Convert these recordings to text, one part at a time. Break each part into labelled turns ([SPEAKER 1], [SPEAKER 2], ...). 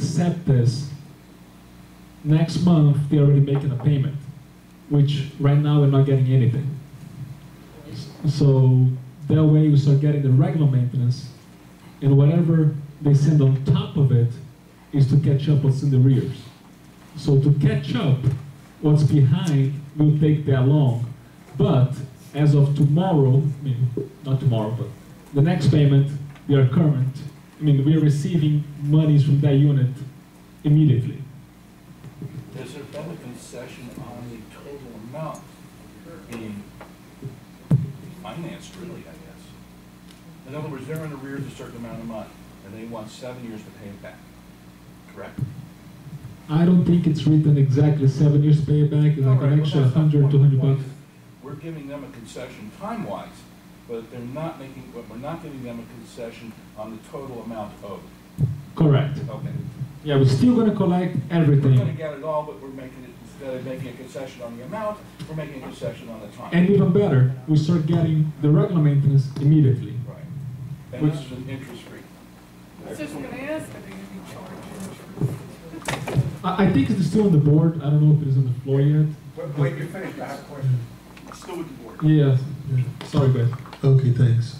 [SPEAKER 1] accept this, next month they're already making a payment, which right now we're not getting anything. So that way we start getting the regular maintenance, and whatever they send on top of it is to catch up what's in the rears. So to catch up what's behind will take that long, but as of tomorrow, I mean, not tomorrow, but the next payment, we are current. I mean, we are receiving monies from that unit immediately.
[SPEAKER 2] There's a public concession on the total amount being financed, really, I guess. In other words, they're in arrears a certain amount of money, and they want seven years to pay it back, correct?
[SPEAKER 1] I don't think it's written exactly seven years payback, it's
[SPEAKER 2] All
[SPEAKER 1] like
[SPEAKER 2] right, well,
[SPEAKER 1] an extra
[SPEAKER 2] that's not the
[SPEAKER 1] hundred,
[SPEAKER 2] point.
[SPEAKER 1] two
[SPEAKER 2] The
[SPEAKER 1] hundred
[SPEAKER 2] point
[SPEAKER 1] bucks.
[SPEAKER 2] is, We're giving them a concession time-wise, but they're not making, but we're not giving them a concession on the total amount owed.
[SPEAKER 1] Correct.
[SPEAKER 2] Okay.
[SPEAKER 1] Yeah, we're still gonna collect
[SPEAKER 2] We're gonna
[SPEAKER 1] everything.
[SPEAKER 2] get it all, but we're making it, instead of making a concession on the amount, we're making a concession on the time.
[SPEAKER 1] And even better, we start getting the regular maintenance immediately.
[SPEAKER 2] Right. And this
[SPEAKER 1] Which-
[SPEAKER 2] is an interest rate.
[SPEAKER 3] I was just gonna ask, are they gonna be charged?
[SPEAKER 1] I, I think it's still on the board, I don't know if it is on the floor yet.
[SPEAKER 4] Wait, wait, you're finished, I have a question.
[SPEAKER 2] Still with the board.
[SPEAKER 1] Yeah, sorry guys.
[SPEAKER 4] Okay, thanks.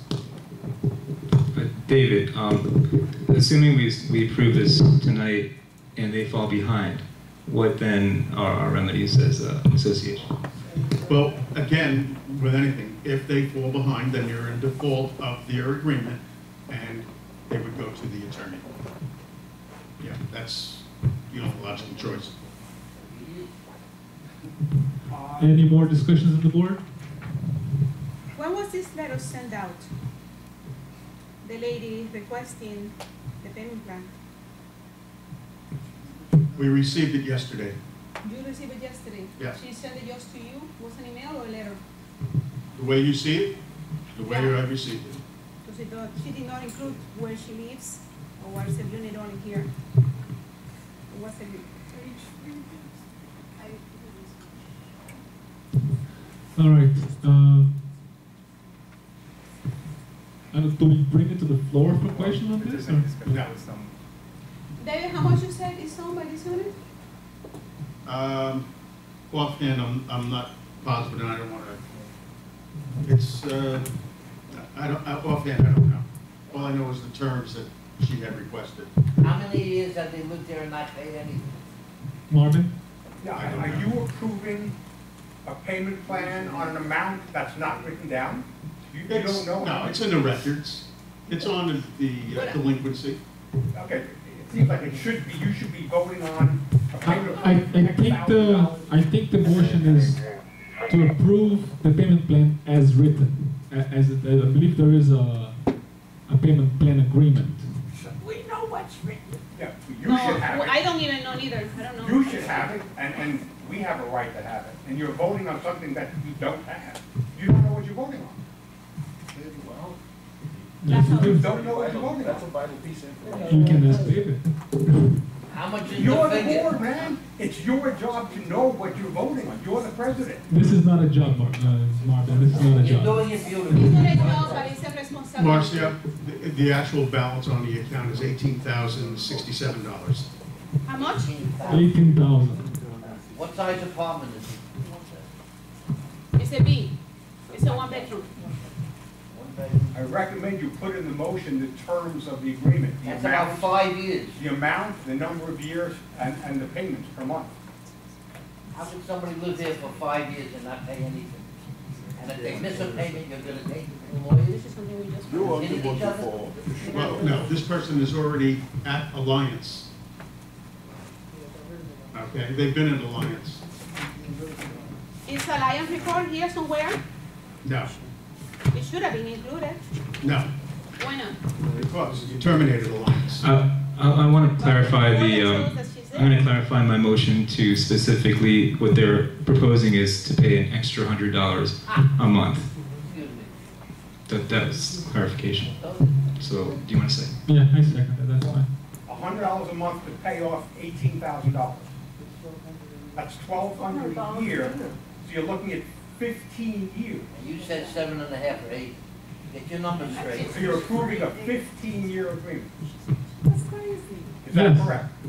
[SPEAKER 5] Uh, David, um, assuming we, we approve this tonight and they fall behind, what then are our remedies as a association?
[SPEAKER 6] Well, again, with anything, if they fall behind, then you're in default of their agreement, and they would go to the attorney. Yeah, that's, you know, logical choice.
[SPEAKER 1] Any more discussions on the board?
[SPEAKER 7] When was this letter sent out? The lady requesting the payment plan.
[SPEAKER 6] We received it yesterday.
[SPEAKER 7] You received it yesterday?
[SPEAKER 6] Yeah.
[SPEAKER 7] She sent it just to you? Was an email or a letter?
[SPEAKER 6] The way you see it, the way I received it.
[SPEAKER 7] Because she don't- she did not include where she lives or what's the unit on here. What's the,
[SPEAKER 1] All right. Um, I don't, do we bring it to the floor for question on this? or-
[SPEAKER 6] No.
[SPEAKER 7] David, how much you said is owned by this unit?
[SPEAKER 6] Um, Offhand, I'm, I'm not positive, and I don't want to, it's, uh, I don't, I- offhand, I don't know. All I know is the terms that she had requested.
[SPEAKER 8] How many years have they lived there and not paid anything?
[SPEAKER 1] Marvin?
[SPEAKER 4] Now, are you approving a payment plan on an amount that's not written down? You you
[SPEAKER 6] It's-
[SPEAKER 4] don't know?
[SPEAKER 6] No, it's in the records. It's on the uh, delinquency.
[SPEAKER 4] Okay, it seems like it should be, you should be voting on a
[SPEAKER 1] I,
[SPEAKER 4] payment.
[SPEAKER 1] I, I think the, I think the motion is to approve the payment plan as written. a- As, it- I believe there is a, a payment plan agreement.
[SPEAKER 3] We know what's written.
[SPEAKER 4] Yeah, you should have
[SPEAKER 7] I
[SPEAKER 4] it.
[SPEAKER 7] don't even know neither, I don't know.
[SPEAKER 4] You should have it, and, and we have a right to have it. And you're voting on something that you don't have. You don't know what you're voting on.
[SPEAKER 2] Well,
[SPEAKER 7] That's how
[SPEAKER 4] You
[SPEAKER 7] it-
[SPEAKER 4] don't know what you're voting
[SPEAKER 2] That's a
[SPEAKER 4] on.
[SPEAKER 2] vital piece of information.
[SPEAKER 1] You can ask David.
[SPEAKER 8] How much is the
[SPEAKER 4] You're the
[SPEAKER 8] figure?
[SPEAKER 4] board, man. It's your job to know what you're voting on. You're the president.
[SPEAKER 1] This is not a job, Mar- uh, Marvin, this is not a
[SPEAKER 8] You're
[SPEAKER 1] job.
[SPEAKER 8] doing it
[SPEAKER 7] It's not a
[SPEAKER 8] beautifully.
[SPEAKER 7] job, but it's a responsibility.
[SPEAKER 6] Marcia, the- the actual balance on the account is eighteen thousand sixty-seven dollars.
[SPEAKER 7] How much?
[SPEAKER 1] Eighteen thousand.
[SPEAKER 8] What size apartment is it?
[SPEAKER 7] It's a B, it's a one bedroom.
[SPEAKER 8] One bedroom.
[SPEAKER 4] I recommend you put in the motion the terms of the agreement, the
[SPEAKER 8] That's about
[SPEAKER 4] amount,
[SPEAKER 8] five years.
[SPEAKER 4] the amount, the number of years, and, and the payments per month.
[SPEAKER 8] How could somebody live there for five years and not pay anything? And if they miss a payment, you're gonna take it to lawyers?
[SPEAKER 7] This is something we just.
[SPEAKER 2] You are the
[SPEAKER 8] Hitting
[SPEAKER 2] one
[SPEAKER 8] each
[SPEAKER 2] to
[SPEAKER 8] other?
[SPEAKER 2] fall.
[SPEAKER 6] Well, no, this person is already at Alliance. Okay, they've been in Alliance.
[SPEAKER 7] Is a lion report here somewhere?
[SPEAKER 6] No,
[SPEAKER 7] It should have been included.
[SPEAKER 6] no,
[SPEAKER 7] Why not?
[SPEAKER 6] because you terminated Alliance.
[SPEAKER 5] Uh, I, I want to clarify
[SPEAKER 7] Well, it
[SPEAKER 5] the,
[SPEAKER 7] shows
[SPEAKER 5] um,
[SPEAKER 7] that she's
[SPEAKER 5] I'm going
[SPEAKER 7] there.
[SPEAKER 5] to clarify my motion to specifically what they're proposing is to pay an extra hundred dollars a month.
[SPEAKER 8] Excuse me.
[SPEAKER 5] That, that was clarification.
[SPEAKER 8] Those-
[SPEAKER 5] So, do you want to say?
[SPEAKER 1] Yeah, I second that, that's fine.
[SPEAKER 4] A hundred dollars a month to pay off eighteen thousand dollars. That's twelve hundred a year, so you're looking at fifteen years.
[SPEAKER 8] You said seven and a half or eight. Get your numbers straight.
[SPEAKER 4] So you're approving a fifteen-year agreement.
[SPEAKER 3] That's crazy.
[SPEAKER 4] Is that
[SPEAKER 1] Yes.
[SPEAKER 4] correct?